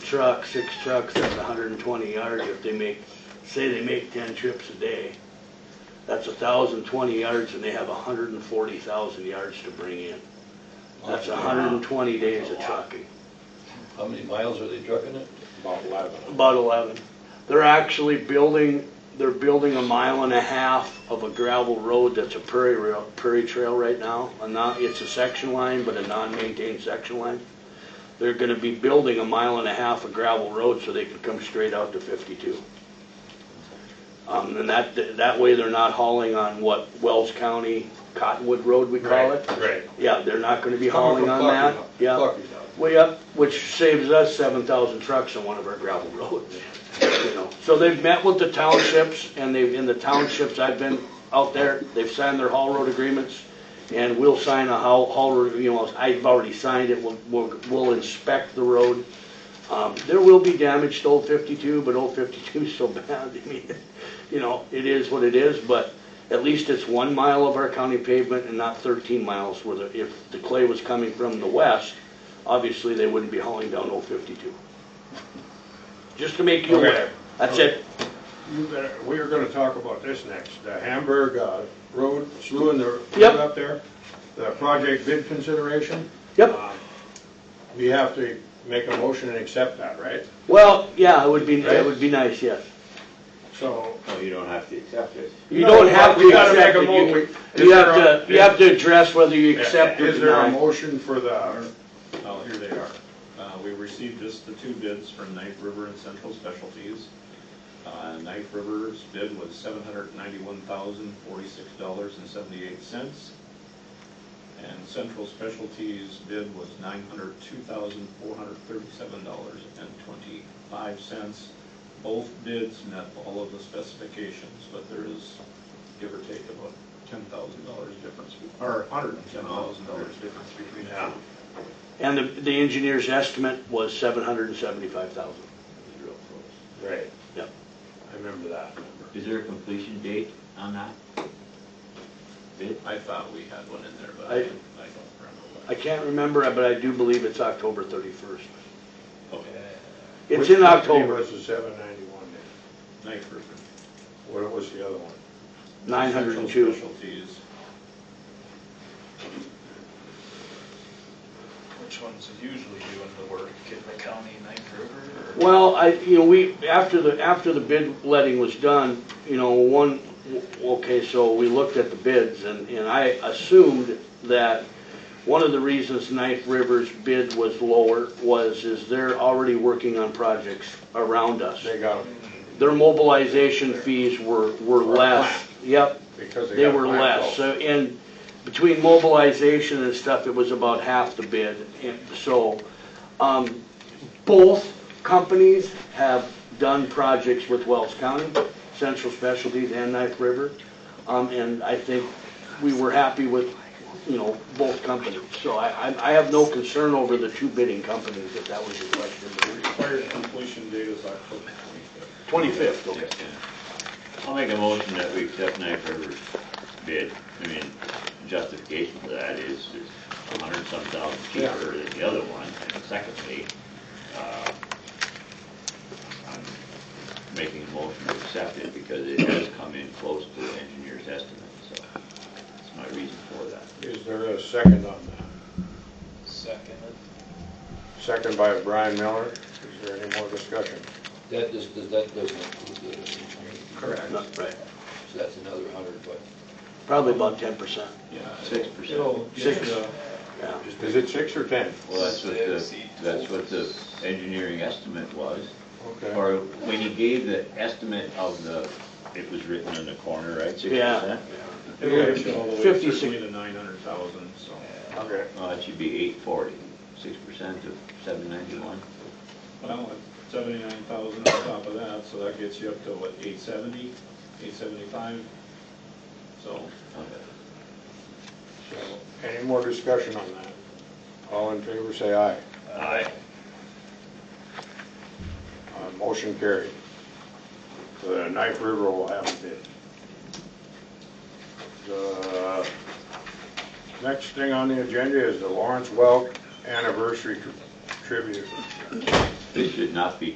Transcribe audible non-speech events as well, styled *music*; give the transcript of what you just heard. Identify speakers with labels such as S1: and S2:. S1: trucks, six trucks, that's hundred and twenty yards if they make, say they make ten trips a day. That's thousand twenty yards and they have hundred and forty thousand yards to bring in. That's hundred and twenty days of trucking,
S2: How many miles are they trucking it?
S3: About eleven.
S1: about eleven. They're actually building, they're building a mile and a half of a gravel road that's a prairie rail, prairie trail right now. And not, it's a section line, but a non-maintained section line. They're gonna be building a mile and a half of gravel road so they can come straight out to fifty-two. Um, and that, that way they're not hauling on what Wells County Cottonwood Road we call it.
S3: Right.
S1: Yeah, they're not gonna be
S2: Coming
S1: hauling
S2: from
S1: on
S2: Clarkie
S1: that,
S2: now,
S1: yeah.
S2: Clarkie now.
S1: Way up, which saves us seven thousand trucks on one of our gravel *laughs* roads, you know. So they've met with the townships, and they've, in the townships, I've been out there, they've signed their haul road agreements, and we'll sign a haul, haul, road, you know, I've already signed it, we'll, we'll, we'll inspect the road. Um, there will be damage to Old Fifty-two, but Old 52 is so *laughs* bad, I mean, you know, it is what it is, but at least it's one mile of our county pavement and not thirteen miles where the, if the clay was coming from the west, obviously they wouldn't be hauling down Old 52. Just to make you
S3: Okay.
S1: aware, that's it.
S3: You better, we were gonna talk about this next, the Hamburg uh, Road, Slough and the
S1: Yep.
S3: road up there, the project bid consideration.
S1: Yep,
S3: Um, We have to make a motion and accept that, right?
S1: well, yeah, it would be, it would be nice, yes.
S3: So,
S4: No, Oh, you don't have to accept it.
S1: You
S3: No,
S1: don't have
S3: we
S1: to
S3: gotta make
S1: accept
S3: a
S1: it,
S3: mo-
S1: you,
S3: we-
S1: you
S3: is
S1: have
S3: there a-
S1: to, you have to address whether you accept or
S3: is there a
S1: deny.
S3: motion for the,
S5: Oh, here they are. Uh, We received just the two bids from Knife River and Central Specialties. Uh, Knife River's bid was seven hundred ninety-one thousand, forty-six dollars and seventy-eight cents. And Central Specialties' bid was nine hundred two thousand, four hundred thirty-seven dollars and twenty-five cents. Both bids met all of the specifications, but there is, give or take, about ten thousand dollars difference, be- or hundred and ten thousand dollars difference between the
S3: Yeah.
S5: two.
S1: And the, the engineer's estimate was seven hundred and seventy-five thousand.
S5: Real close.
S3: right,
S1: Yep.
S3: I remember that number.
S4: Is there a completion date on that? Bid?
S5: I thought we had one in there, but I
S1: I-
S5: I don't remember.
S1: I can't remember, but I do believe it's October thirty-first.
S5: Okay,
S1: It's
S3: Which
S1: in
S3: company
S1: October,
S3: was the seven ninety-one then?
S5: Knife River.
S3: What was the other one?
S1: nine hundred and two.
S5: Central Specialties,
S6: Which ones are usually doing the work, Kidman County, Knife River, or?
S1: Well, I, you know, we, after the, after the bid letting was done, you know, one, okay, so we looked at the bids and, and I assumed that one of the reasons Knife River's bid was lower was, is they're already working on projects around us.
S3: They got them,
S1: Their mobilization fees were, were
S3: Were
S1: less.
S3: flat.
S1: Yep,
S3: because they
S1: They
S3: got
S1: were
S3: blacked
S1: less,
S3: out.
S1: so, and between mobilization and stuff, it was about half the bid, and so, um, both companies have done projects with Wells County, Central Specialties and Knife River, um, and I think we were happy with, you know, both companies, so I, I, I have no concern over the two bidding companies, if that was your question.
S5: required completion date is October twenty-fifth.
S1: Twenty-fifth, okay.
S4: I'll make a motion that we accept Knife River's bid. I mean, justification for that is it's a hundred some thousand
S3: Yeah.
S4: cheaper than the other one. And secondly, uh, I'm making a motion to accept it because it has come in close to the engineer's estimate, so that's my reason for that.
S3: Is there a second on that?
S6: Second.
S3: Second by Brian Miller, is there any more discussion?
S7: That just, does that doesn't include the engineering,
S3: Correct.
S1: Not- Right,
S7: so that's another hundred, but
S1: probably about ten percent,
S4: Six percent.
S5: It'll get,
S1: Six.
S5: uh,
S1: yeah.
S3: Is it six or ten?
S4: Well, that's what the, that's what the engineering estimate was.
S3: Okay.
S4: Or when he gave the estimate of the, it was written in the corner, right? 6%?
S1: Yeah.
S5: it'll get you all the way
S1: 56.
S5: certainly to nine hundred thousand, so.
S3: Okay.
S4: Well, it should be eight forty, six percent of seven ninety-one.
S5: Well, seventy-nine thousand on top of that, so that gets you up to what, eight seventy, eight seventy-five? So,
S3: So, Any more discussion on that? All in favor, say aye.
S4: Aye.
S3: Uh, Motion carried. The Knife River will have a bid. The next thing on the agenda is the Lawrence Welk Anniversary Tri- Tribute.
S4: This should not be